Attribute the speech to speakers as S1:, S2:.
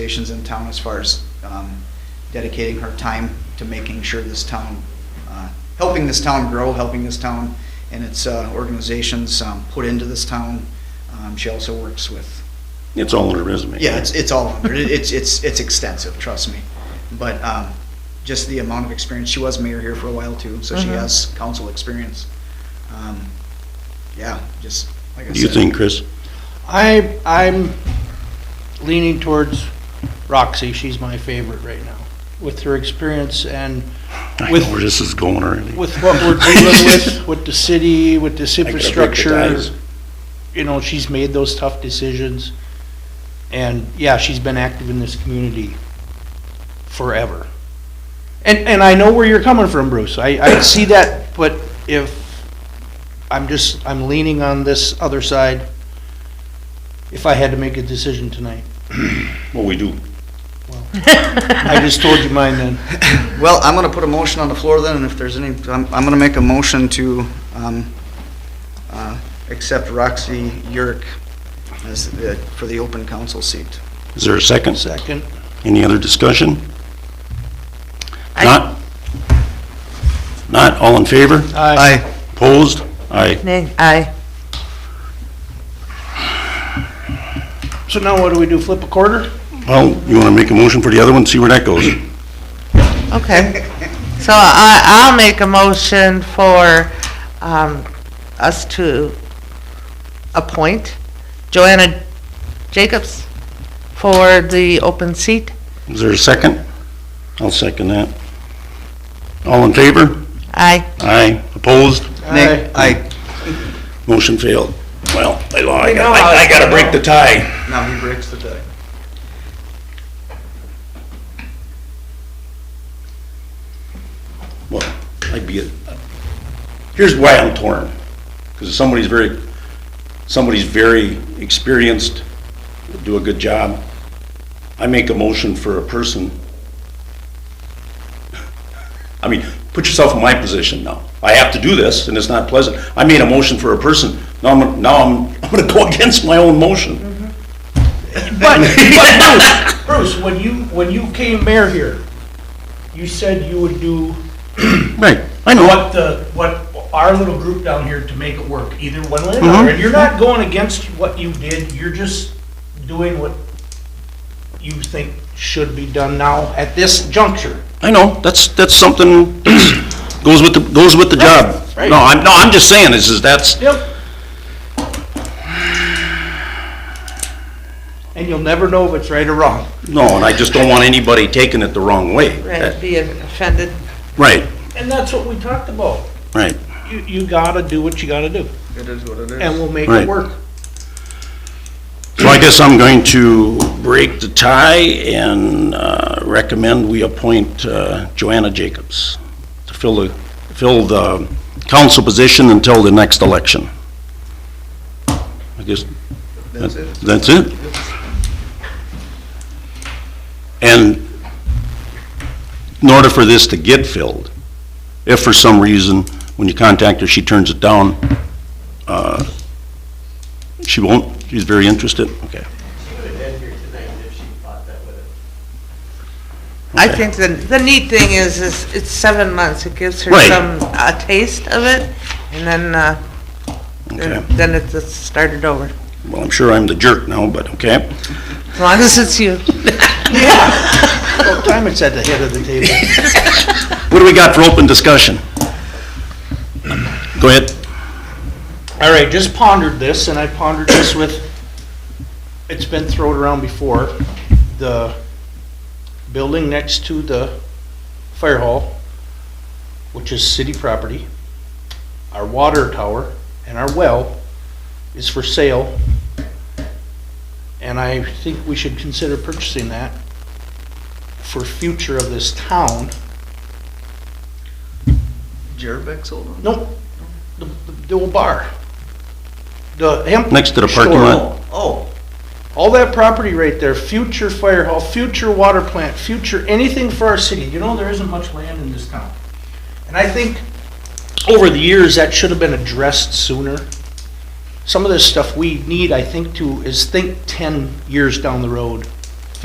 S1: organizations in town as far as um, dedicating her time to making sure this town, uh, helping this town grow, helping this town and its uh, organizations um, put into this town. Um, She also works with,
S2: It's all in her resume.
S1: yeah, it's, it's all under, it. it's, it's, it's extensive, trust me. But um, just the amount of experience, she was mayor here for a while too, so she
S3: Mhm.
S1: has council experience. Um, Yeah, just, like I said.
S2: Do you think, Chris?
S4: I, I'm leaning towards Roxy. She's my favorite right now. With her experience and
S2: I know
S4: With-
S2: where this is going already.
S4: with what we're dealing with, with the city, with this
S2: I gotta break the
S4: infrastructure,
S2: ties.
S4: you know, she's made those tough decisions. And yeah, she's been active in this community forever. And, and I know where you're coming from, Bruce. I, I see that, but if, I'm just, I'm leaning on this other side. If I had to make a decision tonight,
S2: Well, we do.
S4: I just told you mine then.
S1: Well, I'm gonna put a motion on the floor then, and if there's any, I'm, I'm gonna make a motion to, um, uh, accept Roxy Yurk as, the- for the open council seat.
S2: Is there a second?
S4: Second,
S2: Any other discussion?
S3: I-
S2: Not? Not, all in favor?
S4: aye.
S2: Opposed? Aye.
S3: Nay, aye.
S4: So now what do we do, flip a quarter?
S2: Well, you wanna make a motion for the other one, see where that goes?
S3: Okay. So I, I'll make a motion for, um, us to appoint Joanna Jacobs for the open seat.
S2: Is there a second? I'll second that. All in favor?
S3: Aye.
S2: Aye. Opposed?
S1: Nay, aye.
S2: Motion failed. Well, I, lo- I gotta- I I gotta break the tie.
S1: Now he breaks the tie.
S2: Well, I'd be, a- here's why I'm torn. Because somebody's very, somebody's very experienced, would do a good job. I make a motion for a person. I mean, put yourself in my position now. I have to do this, and it's not pleasant. I made a motion for a person, now I'm, gonna- now I'm, I'm gonna go against my own motion.
S4: But, but Bruce, Bruce, when you, when you came mayor here, you said you would do
S2: Right, I know.
S4: what the, what our little group down here to make it work, either one way or another. And you're not going against what you did, you're just doing what you think should be done now at this juncture.
S2: I know, that's, that's something, that's- goes with the, goes with the job.
S4: Right, right.
S2: No, I'm, no, I'm just saying, this is, that's,
S4: Yep. And you'll never know if it's right or wrong.
S2: no, and I just don't want anybody taking it the wrong way.
S3: Right, be offended.
S2: Right,
S4: And that's what we talked about.
S2: right.
S4: You, you gotta do what you gotta do,
S1: It is what it
S4: and
S1: is.
S4: we'll make
S2: Right.
S4: it work.
S2: So I guess I'm going to break the tie and, uh, recommend we appoint, uh, Joanna Jacobs to fill the, fill the council position until the next election. I guess,
S1: That's it.
S2: That's it? And in order for this to get filled, if for some reason, when you contact her, she turns it down, uh, she won't, she's very interested, okay.
S3: I think the, the neat thing is, is it's seven months. It gives her
S2: Right.
S3: some, a taste of it, and then, uh,
S2: Okay.
S3: then then it's it's started over.
S2: Well, I'm sure I'm the jerk now, but okay.
S3: As long as it's you.
S4: What time it's at the head of the table?
S2: What do we got for open discussion? Go ahead.
S4: All right, just pondered this, and I pondered this with, it's been thrown around before, the building next to the fire hall, which is city property, our water tower, and our well is for sale. And I think we should consider purchasing that for future of this town.
S1: Jared Beck sold them?
S4: Nope, the, the, the old bar. The hemp.
S2: Next to the parking
S4: store.
S2: lot.
S1: Oh,
S4: All that property right there, future fire hall, future water plant, future anything for our city. You know, there isn't much land in this town. And I think over the years, that should have been addressed sooner. Some of this stuff we need, I think, to, is think ten years down the road